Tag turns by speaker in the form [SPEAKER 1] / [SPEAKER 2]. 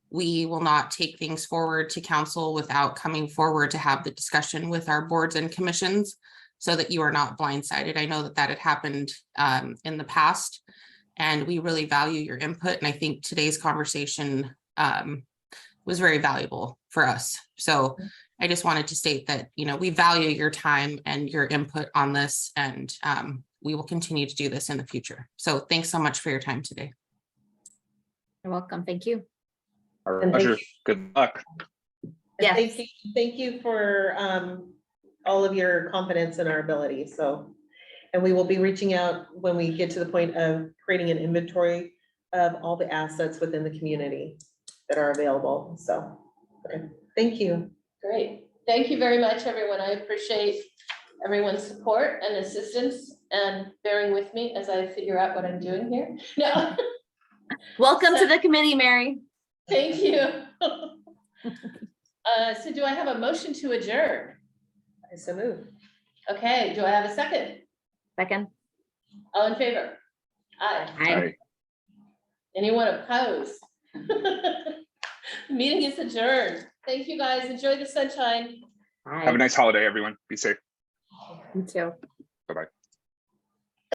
[SPEAKER 1] we will not take things forward to council without coming forward to have the discussion with our boards and commissions so that you are not blindsided. I know that that had happened um, in the past. And we really value your input. And I think today's conversation um, was very valuable for us. So I just wanted to state that, you know, we value your time and your input on this and um, we will continue to do this in the future. So thanks so much for your time today.
[SPEAKER 2] You're welcome. Thank you.
[SPEAKER 3] Our
[SPEAKER 4] And thank
[SPEAKER 3] pleasure. Good luck.
[SPEAKER 4] And
[SPEAKER 2] Yes.
[SPEAKER 4] Thank you, thank you for um, all of your confidence in our ability, so. And we will be reaching out when we get to the point of creating an inventory of all the assets within the community that are available, so. okay, Thank you.
[SPEAKER 5] Great. Thank you very much, everyone. I appreciate everyone's support and assistance and bearing with me as I figure out what I'm doing here. No,
[SPEAKER 2] Welcome to the committee, Mary.
[SPEAKER 5] thank you. Uh, so do I have a motion to adjourn?
[SPEAKER 4] I so move.
[SPEAKER 5] Okay, do I have a second?
[SPEAKER 2] Second.
[SPEAKER 5] All in favor? Aye.
[SPEAKER 3] All
[SPEAKER 2] Hi.
[SPEAKER 3] right.
[SPEAKER 5] Anyone opposed? Meeting is adjourned. Thank you, guys. Enjoy the sunshine.
[SPEAKER 3] Have a nice holiday, everyone. Be safe.
[SPEAKER 2] You too.
[SPEAKER 3] Bye-bye.